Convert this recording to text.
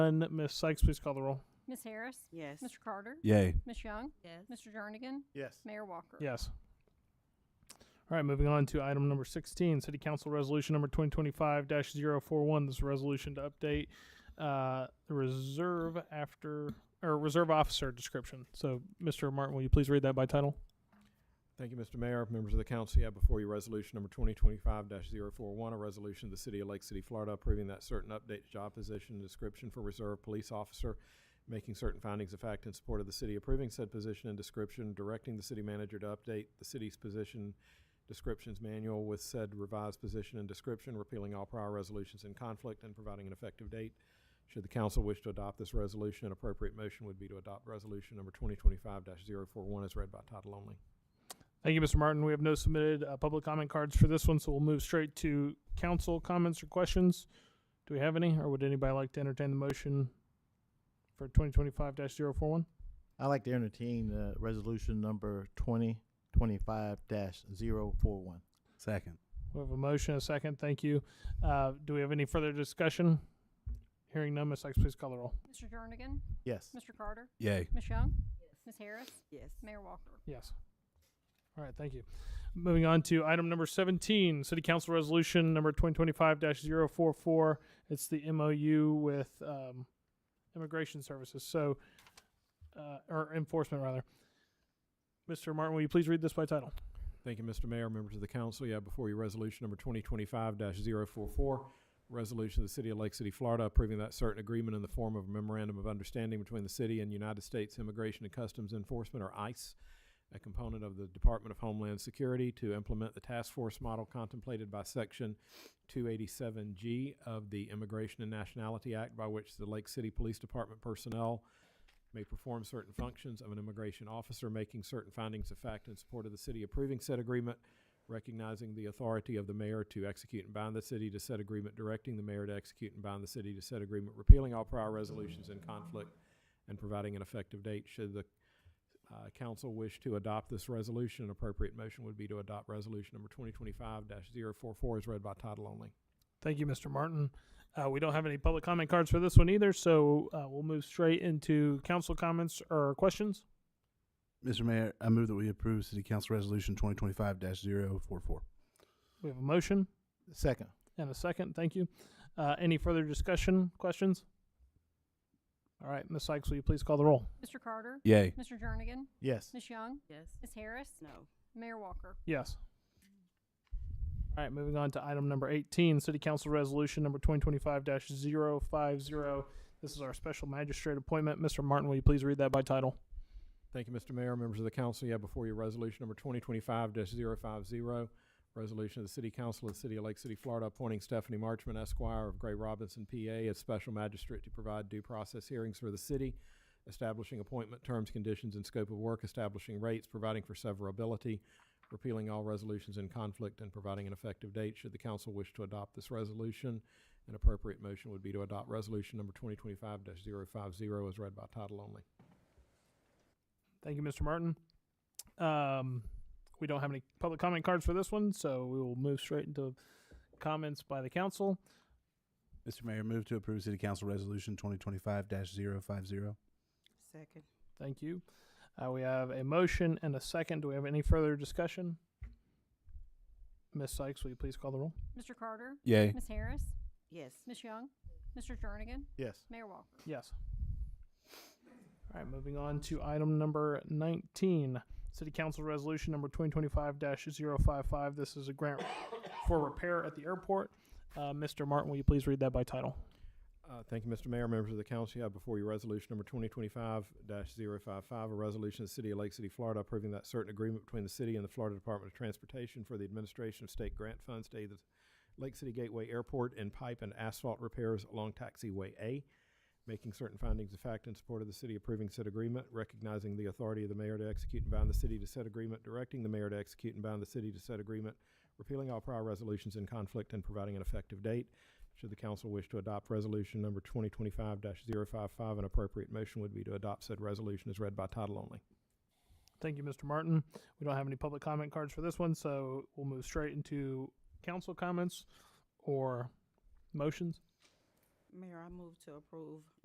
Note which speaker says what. Speaker 1: None. Ms. Sykes, please call the roll.
Speaker 2: Ms. Harris?
Speaker 3: Yes.
Speaker 2: Mr. Carter?
Speaker 4: Yay.
Speaker 2: Ms. Young?
Speaker 3: Yes.
Speaker 2: Mr. Jernigan?
Speaker 5: Yes.
Speaker 2: Mayor Walker?
Speaker 1: Yes. All right, moving on to item number 16, City Council Resolution Number 2025-041. This is a resolution to update uh, the reserve after or reserve officer description. So, Mr. Martin, will you please read that by title?
Speaker 5: Thank you, Mr. Mayor, members of the council. You have before you resolution number twenty twenty-five 41 a resolution of the city of Lake City, Florida, approving that certain updates job position and description for reserve police officer, making certain findings of fact in support of the city, approving said position and description, directing the city manager to update the city's position descriptions manual with said revised position and description, repealing all prior resolutions in conflict and providing an effective date. Should the council wish to adopt this resolution, an appropriate motion would be to adopt resolution number twenty twenty-five 41 as read by title only.
Speaker 1: Thank you, Mr. Martin. We have no submitted uh, public comment cards for this one, so we'll move straight to council comments or questions. Do we have any, or would anybody like to entertain the motion for 2025-041?
Speaker 6: I'd like to entertain uh, resolution number twenty twenty-five dash zero four one.
Speaker 4: Second.
Speaker 1: We have a motion, a second. Thank you. Uh, do we have any further discussion? Hearing none, Ms. Sykes, please call the roll.
Speaker 2: Mr. Jernigan?
Speaker 6: Yes.
Speaker 2: Mr. Carter?
Speaker 4: Yay.
Speaker 2: Ms. Young? Ms. Harris?
Speaker 3: Yes.
Speaker 2: Mayor Walker?
Speaker 1: Yes. All right, thank you. Moving on to item number 17, City Council Resolution Number 2025-044. It's the MOU with um, Immigration Services, so, uh, or enforcement, rather. Mr. Martin, will you please read this by title?
Speaker 5: Thank you, Mr. Mayor, members of the council. You have before you resolution number twenty twenty-five 44 Resolution of the City of Lake City, Florida, approving that certain agreement in the form of a memorandum of understanding between the city and United States Immigration and Customs Enforcement, or ICE, a component of the Department of Homeland Security, to implement the task force model contemplated by Section two eighty-seven G of the Immigration and Nationality Act, by which the Lake City Police Department personnel may perform certain functions of an immigration officer, making certain findings of fact in support of the city approving said agreement, recognizing the authority of the mayor to execute and bind the city to said agreement, directing the mayor to execute and bind the city to said agreement, repealing all prior resolutions in conflict, and providing an effective date. Should the uh, council wish to adopt this resolution, an appropriate motion would be to adopt resolution number twenty twenty-five 44 as read by title only.
Speaker 1: Thank you, Mr. Martin. Uh, we don't have any public comment cards for this one either, so uh, we'll move straight into council comments or questions.
Speaker 4: Mr. Mayor, I move that we approve City Council Resolution 2025-044.
Speaker 1: We have a motion.
Speaker 6: Second.
Speaker 1: And a second, thank you. Uh, any further discussion, questions? All right, Ms. Sykes, will you please call the roll?
Speaker 2: Mr. Carter?
Speaker 4: Yay.
Speaker 2: Mr. Jernigan?
Speaker 6: Yes.
Speaker 2: Ms. Young?
Speaker 3: Yes.
Speaker 2: Ms. Harris?
Speaker 3: No.
Speaker 2: Mayor Walker?
Speaker 1: Yes. All right, moving on to item number 18, City Council Resolution Number 2025-050. This is our special magistrate appointment. Mr. Martin, will you please read that by title?
Speaker 5: Thank you, Mr. Mayor. Members of the council, you have before you resolution number twenty twenty-five 50 Resolution of the City Council of the City of Lake City, Florida, appointing Stephanie Marchman Esquire of Gray Robinson, PA, as special magistrate to provide due process hearings for the city, establishing appointment terms, conditions, and scope of work, establishing rates, providing for severability, repealing all resolutions in conflict, and providing an effective date. Should the council wish to adopt this resolution, an appropriate motion would be to adopt resolution number twenty twenty-five 50 as read by title only.
Speaker 1: Thank you, Mr. Martin. Um, we don't have any public comment cards for this one, so we will move straight into comments by the council.
Speaker 4: Mr. Mayor, move to approve City Council Resolution 2025-050.
Speaker 3: Second.
Speaker 1: Thank you. Uh, we have a motion and a second. Do we have any further discussion? Ms. Sykes, will you please call the roll?
Speaker 2: Mr. Carter?
Speaker 4: Yay.
Speaker 2: Ms. Harris?
Speaker 3: Yes.
Speaker 2: Ms. Young? Mr. Jernigan?
Speaker 6: Yes.
Speaker 2: Mayor Walker?
Speaker 1: Yes. All right, moving on to item number 19, City Council Resolution Number 2025-055. This is a grant for repair at the airport. Uh, Mr. Martin, will you please read that by title?
Speaker 5: Uh, Thank you, Mr. Mayor. Members of the council, you have before you resolution number twenty twenty-five 55 a resolution of the City of Lake City, Florida, approving that certain agreement between the city and the Florida Department of Transportation for the administration of state grant funds to aid the Lake City Gateway Airport and pipe and asphalt repairs along taxiway A, making certain findings of fact in support of the city approving said agreement, recognizing the authority of the mayor to execute and bind the city to said agreement, directing the mayor to execute and bind the city to said agreement, repealing all prior resolutions in conflict and providing an effective date. Should the council wish to adopt resolution number twenty twenty-five 55 an appropriate motion would be to adopt said resolution as read by title only.
Speaker 1: Thank you, Mr. Martin. We don't have any public comment cards for this one, so we'll move straight into council comments or motions.
Speaker 3: Mayor, I move to approve